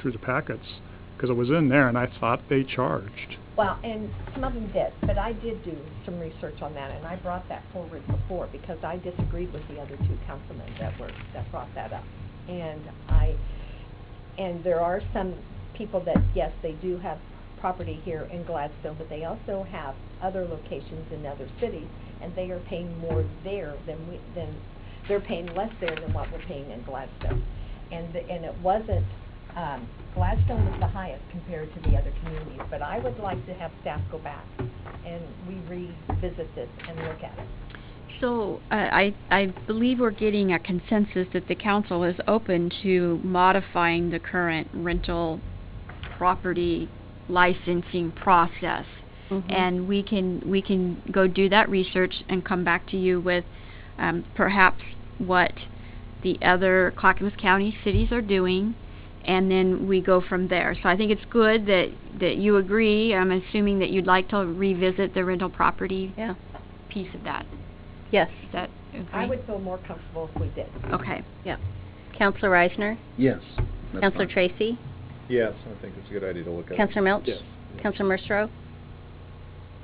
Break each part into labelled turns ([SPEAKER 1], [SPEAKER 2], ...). [SPEAKER 1] through the packets, because I was in there and I thought they charged.
[SPEAKER 2] Well, and some of them did, but I did do some research on that, and I brought that forward before, because I disagreed with the other two councilmen that were, that brought that up. And I, and there are some people that, yes, they do have property here in Gladstone, but they also have other locations in other cities, and they are paying more there than we, than, they're paying less there than what we're paying in Gladstone. And, the- and it wasn't, um, Gladstone was the highest compared to the other communities, but I would like to have staff go back and we revisit this and look at it.
[SPEAKER 3] So, uh, I, I believe we're getting a consensus that the council is open to modifying the current rental property licensing process. And we can, we can go do that research and come back to you with, um, perhaps what the other Clackamas County cities are doing, and then we go from there. So I think it's good that, that you agree. I'm assuming that you'd like to revisit the rental property
[SPEAKER 4] Yeah,
[SPEAKER 3] piece of that.
[SPEAKER 4] yes,
[SPEAKER 3] Is that okay?
[SPEAKER 2] I would feel more comfortable if we did.
[SPEAKER 3] Okay.
[SPEAKER 4] yeah. Counselor Reisner?
[SPEAKER 5] Yes. that's
[SPEAKER 4] Counselor
[SPEAKER 5] fine.
[SPEAKER 4] Tracy?
[SPEAKER 6] Yes, I think it's a good idea to look at.
[SPEAKER 4] Counselor Milch?
[SPEAKER 6] Yes.
[SPEAKER 4] Counselor Mercero?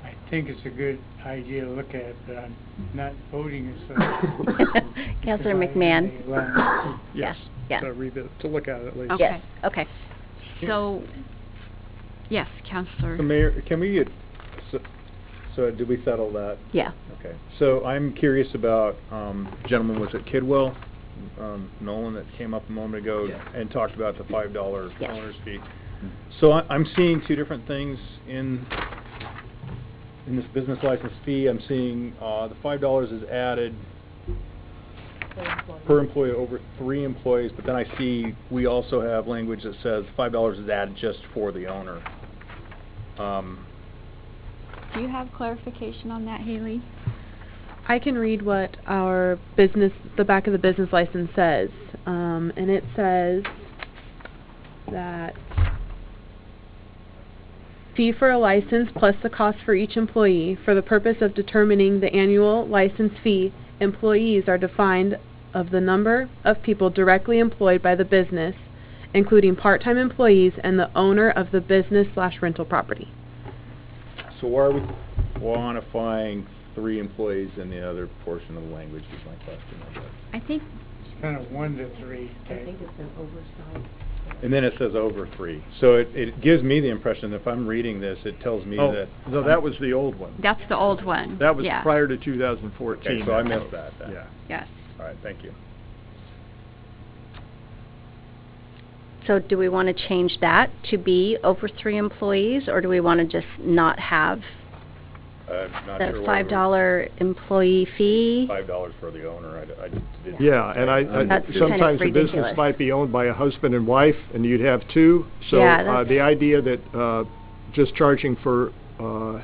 [SPEAKER 7] I think it's a good idea to look at, but I'm not voting as such.
[SPEAKER 4] Counselor
[SPEAKER 7] Because I am
[SPEAKER 4] McMahon?
[SPEAKER 7] a land-
[SPEAKER 1] Yes.
[SPEAKER 4] yeah.
[SPEAKER 1] To revi- to look at it at least.
[SPEAKER 3] Okay.
[SPEAKER 4] Yes, okay.
[SPEAKER 3] So, yes, Counselor.
[SPEAKER 6] So Mayor, can we, get- so- so did we settle that?
[SPEAKER 4] Yeah.
[SPEAKER 6] Okay. So I'm curious about, um, gentleman, was it Kidwell, um, Nolan that came up a moment ago
[SPEAKER 5] Yeah.
[SPEAKER 6] and talked about the five dollar
[SPEAKER 4] Yes.
[SPEAKER 6] owner's fee? So I, I'm seeing two different things in, in this business license fee. I'm seeing, uh, the five dollars is added
[SPEAKER 2] for employees.
[SPEAKER 6] per employee over three employees, but then I see we also have language that says five dollars is added just for the owner. Um,
[SPEAKER 3] Do you have clarification on that, Haley?
[SPEAKER 8] I can read what our business, the back of the business license says, um, and it says that fee for a license plus the cost for each employee for the purpose of determining the annual license fee. Employees are defined of the number of people directly employed by the business, including part-time employees and the owner of the business slash rental property.
[SPEAKER 6] So why are we quantifying three employees in the other portion of the language is my question, I guess.
[SPEAKER 3] I think,
[SPEAKER 7] It's kind of one to three
[SPEAKER 2] I
[SPEAKER 7] type.
[SPEAKER 2] think it's an oversight.
[SPEAKER 6] And then it says over three. So it, it gives me the impression, if I'm reading this, it tells me
[SPEAKER 5] Oh,
[SPEAKER 6] that.
[SPEAKER 5] no, that was the old one.
[SPEAKER 3] that's the old one.
[SPEAKER 5] That was
[SPEAKER 3] Yeah,
[SPEAKER 5] prior to 2014.
[SPEAKER 6] Okay, so I missed that then.
[SPEAKER 5] Yeah.
[SPEAKER 3] Yes.
[SPEAKER 6] All right, thank you.
[SPEAKER 4] So do we want to change that to be over three employees, or do we want to just not have
[SPEAKER 6] I'm not sure.
[SPEAKER 4] the
[SPEAKER 6] why we-
[SPEAKER 4] five-dollar employee fee?
[SPEAKER 6] Five dollars for the owner, I d- I didn't.
[SPEAKER 5] Yeah, and I,
[SPEAKER 6] I'm
[SPEAKER 5] I-
[SPEAKER 4] That's kind of
[SPEAKER 5] sometimes the business
[SPEAKER 4] ridiculous.
[SPEAKER 5] might be owned by a husband and wife, and you'd have two. So,
[SPEAKER 4] Yeah,
[SPEAKER 5] uh,
[SPEAKER 4] that's-
[SPEAKER 5] the idea that, uh, just charging for, uh,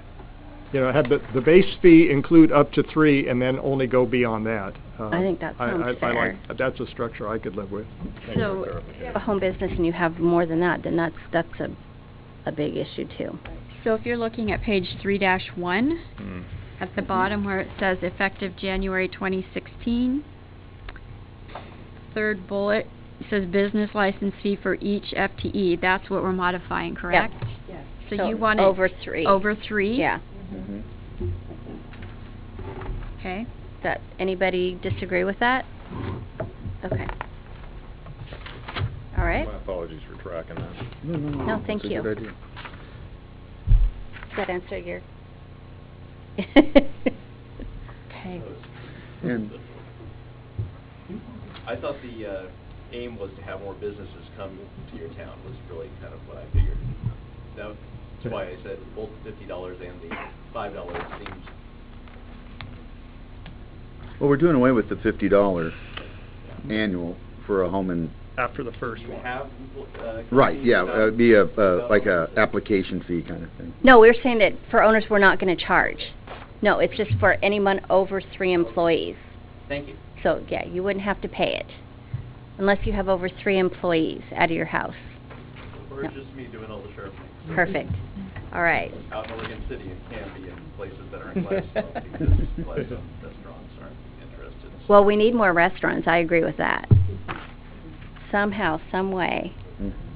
[SPEAKER 5] you know, have the, the base fee include up to three and then only go beyond that. uh,
[SPEAKER 4] I think that
[SPEAKER 5] I-
[SPEAKER 4] sounds
[SPEAKER 5] I- I like-
[SPEAKER 4] fair.
[SPEAKER 5] That's a structure I could live with.
[SPEAKER 6] Thank you for
[SPEAKER 3] So,
[SPEAKER 4] If you
[SPEAKER 6] clarification.
[SPEAKER 4] have a home business and you have more than that, then that's, that's a, a big issue too.
[SPEAKER 3] so if you're looking at page three dash one,
[SPEAKER 6] Mm.
[SPEAKER 3] at the bottom where it says effective January 2016, third bullet says business license fee for each FTE. That's what we're modifying, correct?
[SPEAKER 2] Yes.
[SPEAKER 3] So
[SPEAKER 4] So
[SPEAKER 3] you want it.
[SPEAKER 4] over three.
[SPEAKER 3] Over three?
[SPEAKER 4] Yeah.
[SPEAKER 6] Mm-hmm.
[SPEAKER 3] Okay.
[SPEAKER 4] That, anybody disagree with that? Okay. All right.
[SPEAKER 6] My apologies for tracking that.
[SPEAKER 4] No, thank you. Does that answer your?
[SPEAKER 3] Okay.
[SPEAKER 5] And
[SPEAKER 9] I thought the uh, aim was to have more businesses come to your town, was really kind of what I figured. That's why I said both the fifty dollars and the five dollars seems,
[SPEAKER 10] Well, we're doing away with the fifty dollar annual for a home and,
[SPEAKER 1] After the first
[SPEAKER 9] you
[SPEAKER 1] one.
[SPEAKER 9] have, uh...
[SPEAKER 10] right, yeah,
[SPEAKER 9] companies that-
[SPEAKER 10] it'd be a, uh, like a application fee kind of thing.
[SPEAKER 4] No, we were saying that for owners, we're not gonna charge. No, it's just for anyone over three employees.
[SPEAKER 9] Thank you.
[SPEAKER 4] So, yeah, you wouldn't have to pay it unless you have over three employees out of your house.
[SPEAKER 9] Or just me doing all the sheriff things.
[SPEAKER 4] Perfect. All right.
[SPEAKER 9] Out in Oregon City and Canby and places that aren't Gladstone, because Gladstone restaurants aren't interested. so-
[SPEAKER 4] Well, we need more restaurants, I agree with that. Somehow, some way.
[SPEAKER 10] Mhm.